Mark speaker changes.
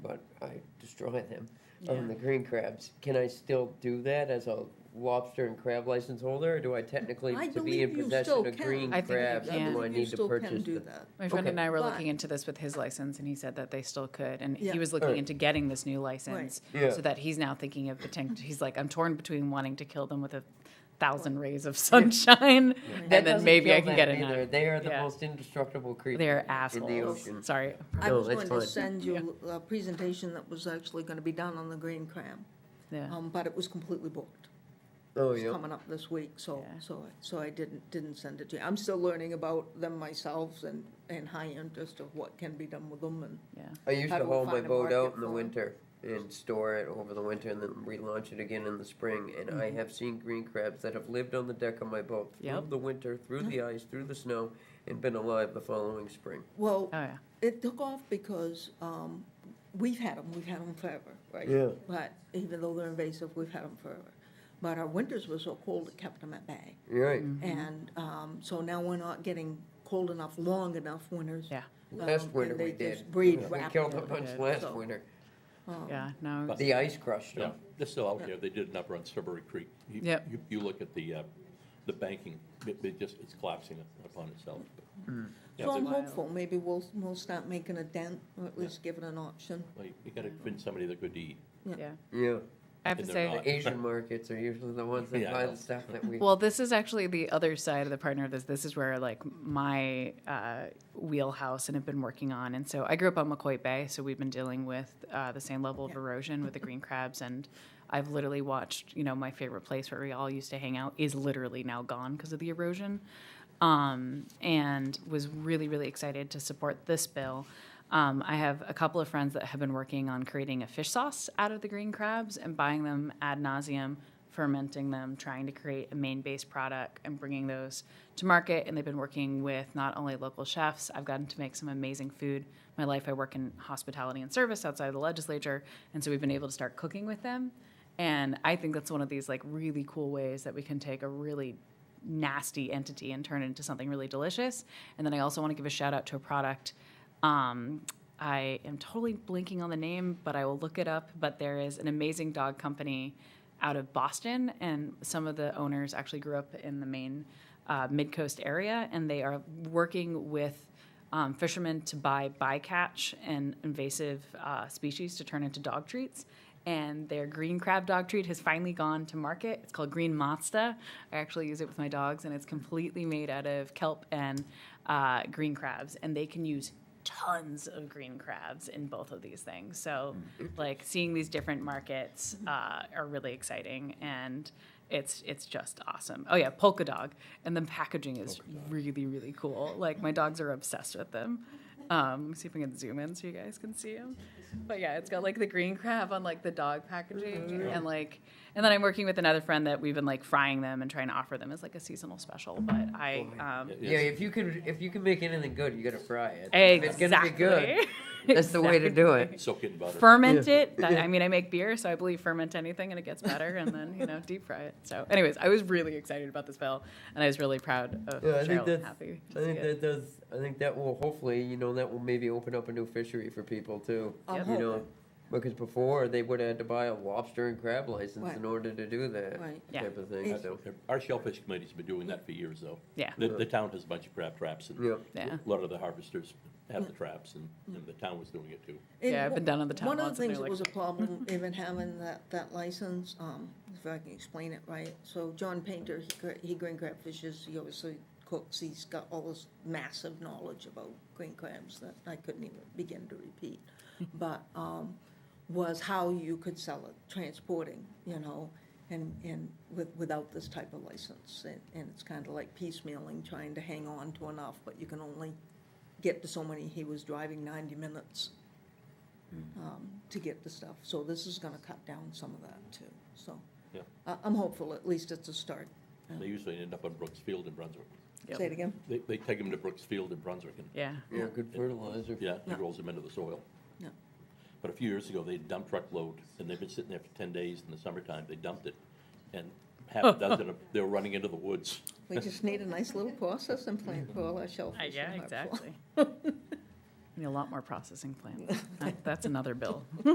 Speaker 1: but I destroy them. Um, the green crabs. Can I still do that as a lobster and crab license holder, or do I technically
Speaker 2: I
Speaker 1: to be in
Speaker 2: believe you
Speaker 1: possession
Speaker 2: still
Speaker 1: of
Speaker 2: can.
Speaker 1: green
Speaker 2: I
Speaker 3: think you
Speaker 1: crabs?
Speaker 3: can.
Speaker 1: Do I
Speaker 2: You
Speaker 1: need to
Speaker 2: still can
Speaker 1: purchase
Speaker 2: do
Speaker 1: the-
Speaker 2: that.
Speaker 3: My friend
Speaker 1: Okay.
Speaker 3: and I were
Speaker 2: But-
Speaker 3: looking into this with his license, and he said that they still could. And
Speaker 2: Yeah.
Speaker 3: he was looking
Speaker 1: Right.
Speaker 3: into getting this new license,
Speaker 1: Yeah.
Speaker 3: so that he's now thinking of potential. He's like, I'm torn between wanting to kill them with a thousand rays of sunshine,
Speaker 1: That
Speaker 3: and then
Speaker 1: doesn't
Speaker 3: maybe
Speaker 1: kill
Speaker 3: I can
Speaker 1: them
Speaker 3: get it.
Speaker 1: either. They are the
Speaker 3: Yeah.
Speaker 1: most indestructible creatures.
Speaker 3: They're
Speaker 1: In the
Speaker 3: assholes.
Speaker 1: ocean.
Speaker 3: Sorry.
Speaker 2: I
Speaker 1: No,
Speaker 2: was
Speaker 1: that's
Speaker 2: going to
Speaker 1: fine.
Speaker 2: send you a presentation that was actually going to be done on the green crab,
Speaker 3: Yeah.
Speaker 2: um, but it was completely booked.
Speaker 1: Oh,
Speaker 2: It's
Speaker 1: yeah.
Speaker 2: coming up this week, so,
Speaker 3: Yeah.
Speaker 2: so, I- so I didn't, didn't send it to you. I'm still learning about them myself and, and high interest of what can be done with them and.
Speaker 3: Yeah.
Speaker 1: I used
Speaker 2: How
Speaker 1: to
Speaker 2: do we
Speaker 1: haul my
Speaker 2: find a
Speaker 1: boat out
Speaker 2: market
Speaker 1: in the
Speaker 2: for it?
Speaker 1: winter and store it over the winter and then relaunch it again in the spring. And
Speaker 2: Mm-hmm.
Speaker 1: I have seen green crabs that have lived on the deck of my boat through
Speaker 3: Yep.
Speaker 1: the winter, through the ice, through the snow, and been alive the following spring.
Speaker 2: Well,
Speaker 3: Oh yeah.
Speaker 2: it took off because, um, we've had them, we've had them forever, right?
Speaker 1: Yeah.
Speaker 2: But even though they're invasive, we've had them forever. But our winters were so cold, it kept them at bay.
Speaker 1: You're right.
Speaker 2: And, um, so now we're not getting cold enough, long enough winters.
Speaker 3: Yeah.
Speaker 2: Um,
Speaker 1: Last
Speaker 2: and
Speaker 1: winter
Speaker 2: they
Speaker 1: we
Speaker 2: just
Speaker 1: did.
Speaker 2: breed
Speaker 1: we killed
Speaker 2: rapidly.
Speaker 1: a bunch
Speaker 3: Yeah.
Speaker 1: last
Speaker 2: So-
Speaker 1: winter. Oh.
Speaker 3: Yeah. No.
Speaker 1: The ice crushed
Speaker 4: Yeah,
Speaker 1: them.
Speaker 4: they're still out there. They did it up around Strawberry Creek. You-
Speaker 3: Yep.
Speaker 4: you- You look at the, uh, the banking, it it just, it's collapsing upon itself. Yeah,
Speaker 2: So I'm
Speaker 4: they-
Speaker 2: hopeful, maybe we'll, we'll start making a dent, or at least give it an option.
Speaker 4: well, You gotta find somebody that could eat.
Speaker 3: Yeah.
Speaker 1: Yeah.
Speaker 3: I have to
Speaker 4: And they're
Speaker 3: say.
Speaker 4: not.
Speaker 1: The Asian markets are usually the ones that
Speaker 4: Yeah, I
Speaker 1: buy
Speaker 4: know.
Speaker 1: the stuff that we.
Speaker 3: Well, this is actually the other side of the partner of this. This is where like my uh, wheelhouse and have been working on. And so I grew up on McCoy Bay, so we've been dealing with uh, the same level of erosion with the green crabs. And I've literally watched, you know, my favorite place where we all used to hang out is literally now gone because of the erosion. Um, and was really, really excited to support this bill. Um, I have a couple of friends that have been working on creating a fish sauce out of the green crabs and buying them ad nauseum, fermenting them, trying to create a main based product and bringing those to market. And they've been working with not only local chefs, I've gotten to make some amazing food. My life, I work in hospitality and service outside of the legislature. And so we've been able to start cooking with them. And I think that's one of these like really cool ways that we can take a really nasty entity and turn it into something really delicious. And then I also want to give a shout out to a product. Um, I am totally blinking on the name, but I will look it up. But there is an amazing dog company out of Boston, and some of the owners actually grew up in the main uh, mid coast area, and they are working with um, fishermen to buy bycatch and invasive uh, species to turn into dog treats. And their green crab dog treat has finally gone to market. It's called Green Mazda. I actually use it with my dogs, and it's completely made out of kelp and uh, green crabs. And they can use tons of green crabs in both of these things. So,
Speaker 1: Mm.
Speaker 3: like seeing these different markets
Speaker 1: Mm-hmm.
Speaker 3: uh, are really exciting, and it's it's just awesome. Oh yeah, Polka Dog, and the packaging is really really cool. Like my dogs are obsessed with them. Um, see if I can zoom in so you guys can see them. But yeah, it's got like the green crab on like the dog
Speaker 1: Mm-hmm.
Speaker 3: packaging, and like, and then I'm working with another friend that we've been like frying them and trying to offer them as like a seasonal special. But I, um,
Speaker 1: Oh, Yeah, if you can if you can make anything good, you gotta fry it. If it's
Speaker 3: exactly.
Speaker 1: gonna be good, that's the way to do it.
Speaker 4: Soak it in butter.
Speaker 3: ferment it. That, I mean, I make beer, so I believe ferment anything and it gets better, and then you know deep fry it. So, anyways, I was really excited about this bill, and I was really proud of
Speaker 1: Yeah, I
Speaker 3: Cheryl.
Speaker 1: think that's.
Speaker 3: happy. to
Speaker 1: I
Speaker 3: see
Speaker 1: think
Speaker 3: it.
Speaker 1: that does. I think that will hopefully, you know, that will maybe open up a new fishery for people too.
Speaker 2: I'm
Speaker 1: You
Speaker 2: hoping.
Speaker 1: know, because before they would have had to buy a lobster and crab license
Speaker 2: Right.
Speaker 1: in order to do that
Speaker 2: Right.
Speaker 3: Yeah.
Speaker 1: type of thing. So
Speaker 4: Our shellfish committee's been doing that for years, though.
Speaker 3: Yeah.
Speaker 4: The, the town has a bunch of crab traps, and
Speaker 1: Yeah.
Speaker 3: Yeah.
Speaker 4: a lot of the harvesters have the traps, and, and the town was doing it too.
Speaker 2: And
Speaker 3: Yeah, I've been
Speaker 2: wh-
Speaker 3: down on the town
Speaker 2: One of
Speaker 3: once
Speaker 2: the
Speaker 3: and
Speaker 2: things
Speaker 3: they're
Speaker 2: that
Speaker 3: like-
Speaker 2: was a problem, even having that, that license, um, if I can explain it right. So John Painter, he, gra- he green crab fishes, he obviously cooks, he's got all this massive knowledge about green crabs that I couldn't even begin to repeat. But, um, was how you could sell it, transporting, you know, and, and with, without this type of license. And, and it's kind of like piecemealing, trying to hang on to enough, but you can only get to so many. He was driving ninety minutes um, to get the stuff. So this is gonna cut down some of that too, so.
Speaker 4: Yeah.
Speaker 2: I, I'm hopeful, at least it's a start.
Speaker 4: They usually end up on Brooks Field in Brunswick.
Speaker 3: Yep.
Speaker 2: Say it again?
Speaker 4: They, they take them to Brooks Field in Brunswick, and
Speaker 3: yeah.
Speaker 1: yeah, good fertilizer.
Speaker 4: Yeah,
Speaker 2: Yeah.
Speaker 4: it rolls them into the soil.
Speaker 2: Yeah.
Speaker 4: But a few years ago, they dumped truckload, and they've been sitting there for ten days in the summertime, they dumped it, and half a dozen of, they were running into the woods.
Speaker 2: We just need a nice little processing plant for all our shellfish.
Speaker 3: Uh, yeah,
Speaker 2: and hard fly.
Speaker 3: exactly. Need a lot more processing plant. That- That's another bill.